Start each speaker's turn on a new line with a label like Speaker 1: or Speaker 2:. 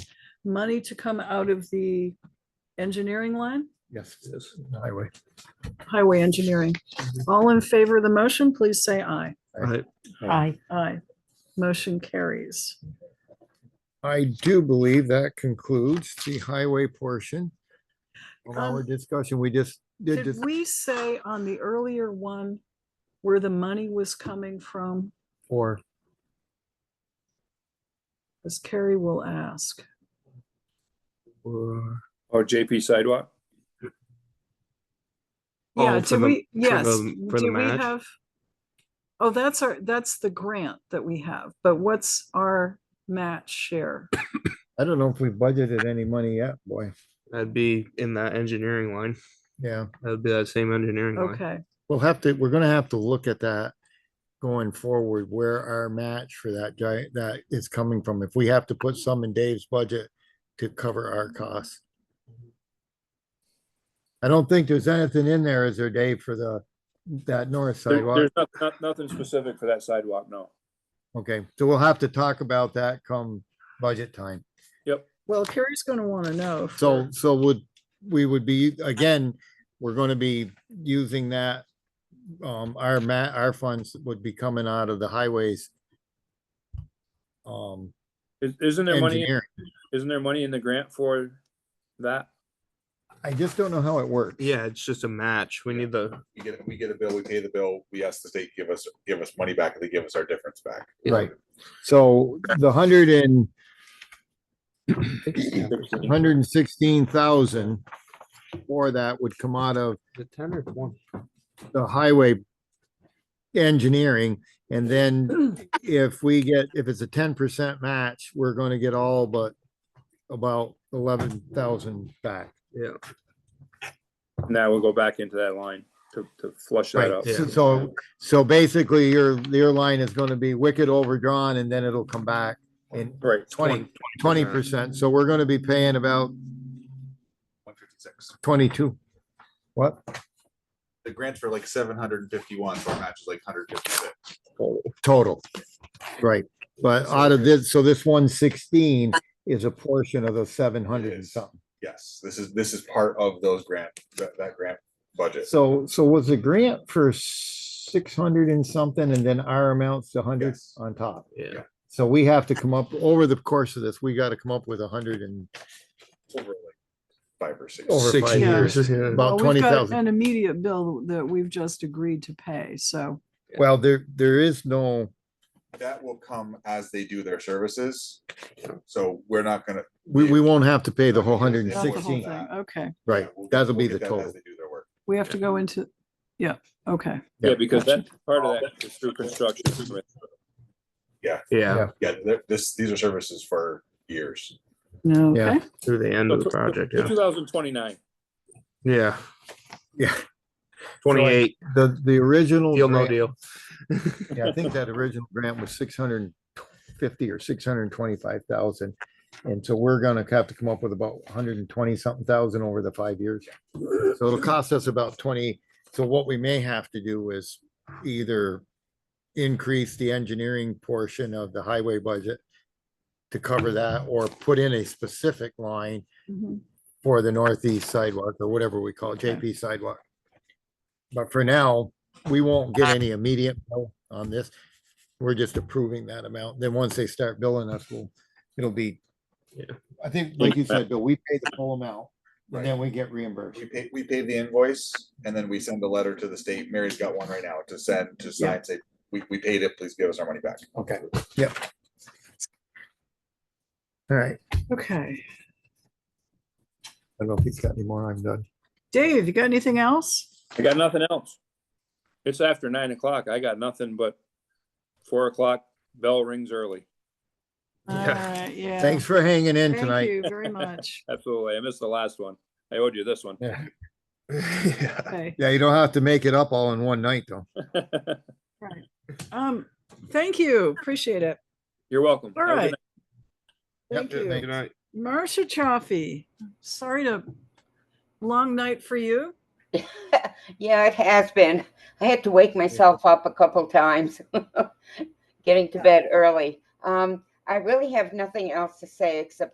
Speaker 1: money to come out of the engineering line,
Speaker 2: Yes, it is, highway.
Speaker 1: highway engineering. All in favor of the motion, please say aye.
Speaker 2: I-
Speaker 3: Aye.
Speaker 1: Aye. Motion carries.
Speaker 2: I do believe that concludes the highway portion of our
Speaker 1: Um,
Speaker 2: discussion. We just did this
Speaker 1: Did we say on the earlier one where the money was coming from?
Speaker 2: for,
Speaker 1: As Carrie will ask.
Speaker 2: for-
Speaker 4: Oh, JP sidewalk?
Speaker 1: Yeah,
Speaker 5: Oh, for
Speaker 1: did
Speaker 5: the-
Speaker 1: we, yes.
Speaker 5: the- for the
Speaker 1: do we
Speaker 5: match?
Speaker 1: have- Oh, that's our, that's the grant that we have, but what's our match share?
Speaker 2: I don't know if we budgeted any money yet, boy.
Speaker 5: That'd be in that engineering line.
Speaker 2: Yeah,
Speaker 5: That'd be that same engineering line.
Speaker 1: Okay,
Speaker 2: we'll have to, we're gonna have to look at that going forward, where our match for that giant, that is coming from. If we have to put some in Dave's budget to cover our costs. I don't think there's anything in there, is there, Dave, for the, that north
Speaker 4: There-
Speaker 2: sidewalk?
Speaker 4: There's not, not, nothing specific for that sidewalk, no.
Speaker 2: Okay, so we'll have to talk about that come budget time.
Speaker 1: well, Carrie's gonna wanna know. if
Speaker 2: So,
Speaker 1: we're-
Speaker 2: so would, we would be, again, we're gonna be using that. Um, our ma, our funds would be coming out of the highways. Um,
Speaker 4: Is- Isn't there money,
Speaker 2: engineer,
Speaker 4: isn't there money in the grant for that?
Speaker 2: I just don't know how it works.
Speaker 5: Yeah, it's just a match. We need the,
Speaker 6: we get, we get a bill, we pay the bill, we ask the state, give us, give us money back, and they give us our difference back.
Speaker 5: Yeah.
Speaker 2: Right, so the hundred and, hundred and sixteen thousand. For that would come out of
Speaker 5: the ten or twenty.
Speaker 2: the highway engineering, and then if we get, if it's a ten percent match, we're gonna get all but about eleven thousand back.
Speaker 5: Yeah,
Speaker 4: Now we'll go back into that line to, to flush that
Speaker 2: Right,
Speaker 4: out.
Speaker 2: so- so, so basically your, your line is gonna be wicked overdrawn and then it'll come back in
Speaker 4: Right,
Speaker 2: twenty, twenty percent, so we're gonna be paying about
Speaker 6: One fifty-six.
Speaker 2: twenty-two. What?
Speaker 6: The grants for like seven hundred and fifty-one, so our match is like hundred fifty-six.
Speaker 2: total. Right, but out of this, so this one sixteen is a portion of the seven hundred and
Speaker 6: Yes.
Speaker 2: something.
Speaker 6: Yes, this is, this is part of those grant, that, that grant budget.
Speaker 2: So, so was the grant for six hundred and something and then our amounts to hundred
Speaker 6: Yes.
Speaker 2: on top?
Speaker 5: yeah.
Speaker 2: So we have to come up, over the course of this, we gotta come up with a hundred and
Speaker 6: over like Five or six.
Speaker 2: over
Speaker 5: Six
Speaker 2: five years.
Speaker 5: years, yeah.
Speaker 2: About
Speaker 1: Well,
Speaker 2: twenty
Speaker 1: we've got
Speaker 2: thousand.
Speaker 1: An immediate bill that we've just agreed to pay, so,
Speaker 2: Well, there, there is no,
Speaker 6: That will come as they do their services, so we're not gonna.
Speaker 2: we, we won't have to pay the
Speaker 6: Not
Speaker 2: whole
Speaker 6: gonna
Speaker 2: hundred and
Speaker 6: get
Speaker 1: not the whole
Speaker 2: sixteen,
Speaker 1: thing, okay,
Speaker 2: right?
Speaker 6: we'll get-
Speaker 2: That'll
Speaker 6: we'll
Speaker 2: be
Speaker 6: get
Speaker 2: the
Speaker 6: that as
Speaker 2: total.
Speaker 6: They do their work.
Speaker 1: we have to go into, yeah, okay.
Speaker 4: yeah, because that, part of that is through construction.
Speaker 5: Yeah,
Speaker 6: Yeah, they're- this, these are services for years.
Speaker 1: No,
Speaker 2: Yeah.
Speaker 1: okay.
Speaker 5: through the end of the project, yeah.
Speaker 4: Two thousand twenty-nine,
Speaker 5: Yeah,
Speaker 2: Yeah,
Speaker 5: twenty-eight,
Speaker 2: the, the original.
Speaker 5: deal, no
Speaker 2: grant-
Speaker 5: deal.
Speaker 2: Yeah, I think that original grant was six hundred and fifty or six hundred and twenty-five thousand. And so we're gonna have to come up with about hundred and twenty something thousand over the five years. So it'll cost us about twenty, so what we may have to do is either increase the engineering portion of the highway budget to cover that, or put in a specific line Mm-hmm.
Speaker 1: Mhm.
Speaker 2: for the northeast sidewalk or whatever we call it,
Speaker 1: Okay.
Speaker 2: JP sidewalk. But for now, we won't
Speaker 1: Uh.
Speaker 2: get any immediate bill on this. We're just approving that amount. Then once they start billing us, we'll, it'll be.
Speaker 5: Yeah.
Speaker 2: I think, like you said, Bill, we pay the full amount and then we get reimbursed.
Speaker 6: We pay, we pay the invoice and then we send a letter to the state. Mary's got one right now to send, to sign, say, we, we paid it, please give us our money back.
Speaker 2: Okay, yep. All right,
Speaker 1: Okay,
Speaker 2: I don't know if he's got any more. I'm done.
Speaker 1: Dave, you got anything else?
Speaker 4: I got nothing else. It's after nine o'clock, I got nothing but four o'clock, bell rings early,
Speaker 1: All
Speaker 5: Yeah.
Speaker 1: right, Uh, yeah.
Speaker 2: Thanks for hanging in
Speaker 1: Thank
Speaker 2: tonight.
Speaker 1: you very much.
Speaker 4: absolutely, I missed the last one, I owed you this one.
Speaker 2: Yeah,
Speaker 1: Okay.
Speaker 2: Yeah, you don't have to make it up all in one night, though.
Speaker 1: Um, thank you, appreciate it.
Speaker 4: You're welcome.
Speaker 1: All
Speaker 4: Have a good
Speaker 1: right.
Speaker 4: night.
Speaker 2: Yep,
Speaker 1: Thank
Speaker 2: yeah,
Speaker 1: you.
Speaker 2: thank
Speaker 5: Good night.
Speaker 1: Marcia Chaffee, sorry to, long night for you.
Speaker 3: Yeah, it has been. I had to wake myself up a couple times, getting to bed early. Um, I really have nothing else to say except